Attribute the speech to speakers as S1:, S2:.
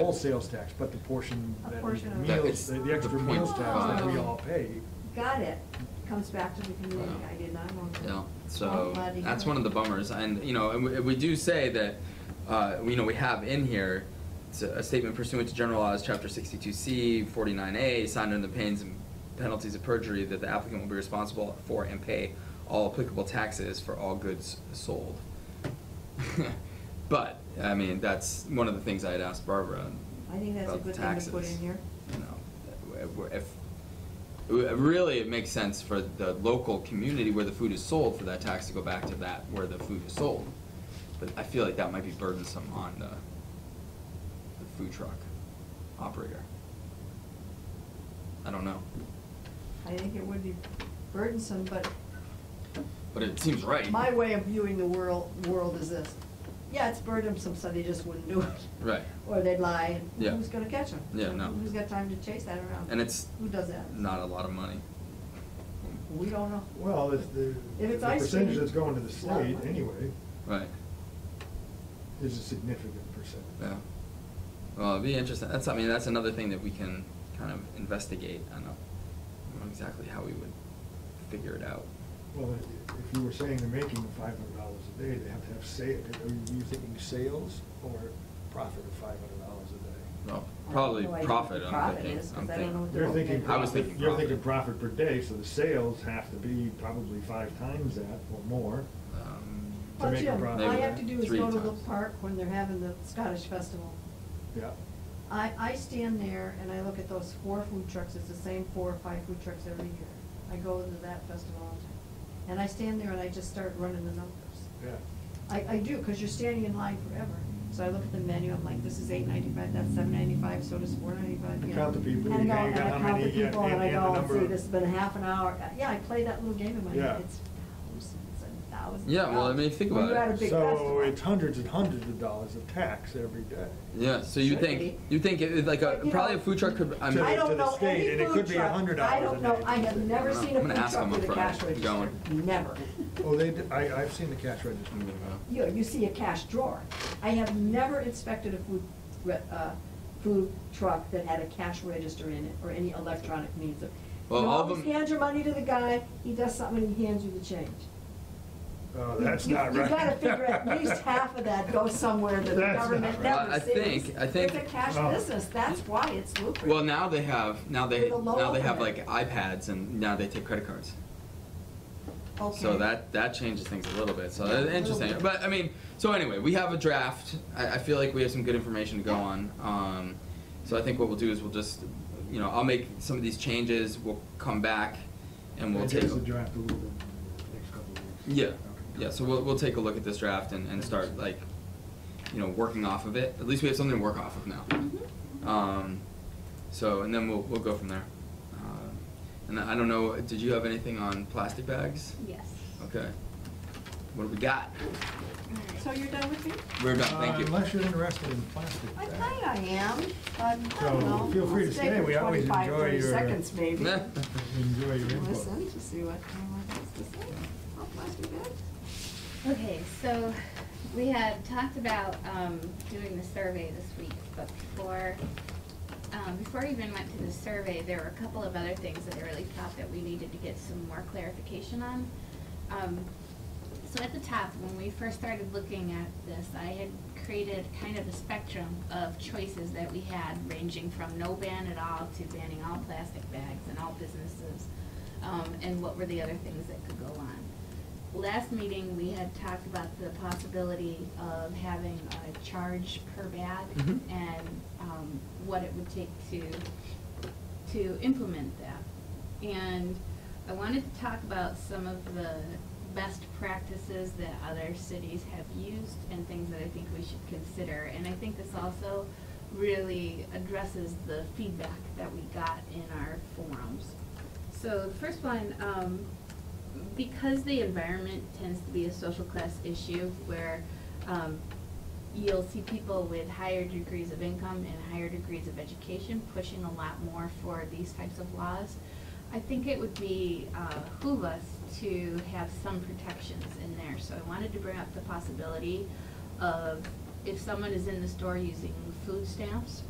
S1: All sales tax, but the portion
S2: A
S1: that
S2: portion of
S1: meals,
S2: it. That
S1: the
S2: it's
S1: the extra
S3: the
S1: meals tax that we
S2: 0.5.
S1: all pay.
S2: Got it, comes back to the community,
S3: Wow.
S2: I did not want to.
S3: Yeah, so that's one of the bummers, and, you know, and we, we do say that, uh, you know, we have in here, it's a a statement pursuant to general laws, chapter sixty-two C, forty-nine A, signed under the pains and penalties of perjury, that the applicant will be responsible for and pay all applicable taxes for all goods sold. But, I mean, that's one of the things I had asked Barbara
S2: I think that's a
S3: about the
S2: good thing to put
S3: taxes,
S2: in here.
S3: You know, that we're- if, w- really, it makes sense for the local community where the food is sold, for that tax to go back to that where the food is sold. But I feel like that might be burdensome on the, the food truck operator. I don't know,
S2: I think it would be burdensome, but
S3: but it seems right.
S2: my way of viewing the world, world is this. Yeah, it's burdensome, so they just wouldn't do it.
S3: Right.
S2: Or they'd lie,
S3: Yeah.
S2: and who's gonna catch them?
S3: Yeah, no.
S2: Who's got time to chase that around?
S3: And it's
S2: Who does that?
S3: Not a lot of money.
S2: We don't know.
S1: Well, it's the,
S2: If
S1: the
S2: it's ice
S1: percentage
S2: cream,
S1: that's going to the
S2: it's not
S1: state
S2: money.
S1: anyway
S3: Right,
S1: is a significant percentage.
S3: yeah. Well, it'd be interesting, that's, I mean, that's another thing that we can kind of investigate, I don't know, I don't know exactly how we would figure it out.
S1: Well, i- if you were saying they're making five hundred dollars a day, they have to have sa, are you thinking sales or profit of five hundred dollars a day?
S3: Well,
S2: I
S3: probably
S2: have no idea
S3: profit,
S2: what
S3: I'm
S2: profit
S3: thinking,
S2: is, 'cause
S3: I'm
S2: I don't
S3: thinking.
S2: know what
S1: You're
S2: Well,
S1: thinking
S2: okay.
S3: I was
S1: profit,
S3: thinking
S1: you're
S3: profit.
S1: thinking profit per day, so the sales have to be probably five times that or more.
S3: Um,
S1: To
S2: Well,
S1: make a
S2: Jim, all
S1: profit.
S2: I have to do is
S3: Three
S2: go to the
S3: times.
S2: park when they're having the Scottish festival.
S1: Yeah.
S2: I, I stand there and I look at those four food trucks, it's the same four or five food trucks every year. I go to that festival all the time. And I stand there and I just start running the numbers.
S1: Yeah.
S2: I, I do, because you're standing in line forever. So I look at the menu, I'm like, this is eight ninety-five, that's seven ninety-five, so does four ninety-five, you know.
S1: Count the people,
S2: And
S1: you
S2: I
S1: got-
S2: go,
S1: you got
S2: and I
S1: how
S2: count the
S1: many, yeah,
S2: people, and
S1: and-
S2: I
S1: and the
S2: go,
S1: number
S2: see,
S1: of-
S2: this has been half an hour. Yeah, I play that little game in my
S1: Yeah.
S2: head, it's thousands and thousands. of
S3: Yeah, well, I mean,
S2: dollars.
S3: think
S2: When
S3: about
S2: you're
S3: it.
S2: at a big festival.
S1: So it's hundreds and hundreds of dollars of tax every day.
S3: Yeah, so you
S2: Should
S3: think,
S2: be.
S3: you think it, like a,
S2: But, you
S3: probably a
S2: know,
S3: food truck could, I
S1: to-
S2: I
S3: mean,
S1: to
S2: don't
S1: the
S2: know
S1: state,
S2: any
S1: and it
S2: food
S1: could be
S2: truck.
S1: $100
S2: I don't
S1: a
S2: know,
S1: day.
S2: I have never
S3: I don't
S2: seen
S3: know.
S2: a
S3: I'm
S2: food
S3: gonna ask
S2: truck
S3: him on
S2: with a
S3: Friday.
S2: cash register,
S3: Going.
S2: never.
S1: Oh, they, d- I, I've seen the cash register.
S2: You, know, you see a cash drawer. I have never inspected a food, re- uh, food truck that had a cash register in it or any electronic means of.
S3: Well,
S2: You
S3: all of
S2: always
S3: them-
S2: hand your money to the guy, he does something, and he hands you the change.
S1: Oh, that's
S2: You-
S1: not
S2: You
S1: right.
S2: gotta figure at least half of that goes somewhere that the
S1: That's not
S2: government
S1: right.
S3: Well, I
S2: never sees.
S3: think- I think-
S2: It's a cash
S1: Oh.
S2: business, that's why it's lucrative.
S3: well, now they have, now they,
S2: With a low
S3: now they have
S2: limit.
S3: like iPads and now they take credit cards. So
S2: Okay.
S3: that, that changes things a little bit, so
S2: Yeah, a
S3: that's
S2: little
S3: interesting,
S2: bit.
S3: but, I mean, so anyway, we have a draft, I, I feel like we have some good information to go on, um, so I think what we'll do is we'll just, you know, I'll make some of these changes, we'll come back, and we'll
S1: That
S3: take.
S1: gives the draft a little bit in the next couple of weeks.
S3: Yeah,
S1: Okay.
S3: yeah, so we'll, we'll take a look at this draft and, and start like, you know, working off of it, at least we have something to work off of
S2: Mm-hmm.
S3: now. Um, so, and then we'll, we'll go from there. Um, And I I don't know, did you have anything on plastic bags?
S4: Yes.
S3: Okay, what do we got?
S2: So you're done with me?
S3: We're done, thank
S1: Uh,
S3: you.
S1: Unless you're interested in plastic
S2: I
S1: bags.
S2: think I am, but I
S1: So,
S2: don't know.
S1: feel free
S2: I'll
S1: to
S2: stay
S1: stay.
S2: for
S1: We always
S2: 25,
S1: enjoy
S2: 30
S1: your-
S2: seconds maybe.
S3: Nah.
S1: Enjoy your input.
S2: Listen to see what anyone has to say. Oh, I'll flash you back.
S4: Okay, so we had talked about um, doing the survey this week, but before, um, before we even went to the survey, there were a couple of other things that I really thought that we needed to get some more clarification on. Um, So at the top, when we first started looking at this, I had created kind of a spectrum of choices that we had, ranging from no ban at all to banning all plastic bags and all businesses, um, and what were the other things that could go on. Last meeting, we had talked about the possibility of having a charge per bag
S3: Mhm.
S4: and um, what it would take to, to implement that. And I wanted to talk about some of the best practices that other cities have used and things that I think we should consider. And I think this also really addresses the feedback that we got in our forums. So the first one, um, because the environment tends to be a social class issue where um, you'll see people with higher degrees of income and higher degrees of education pushing a lot more for these types of laws. I think it would be uh, behoove us to have some protections in there. So I wanted to bring up the possibility of if someone is in the store using food stamps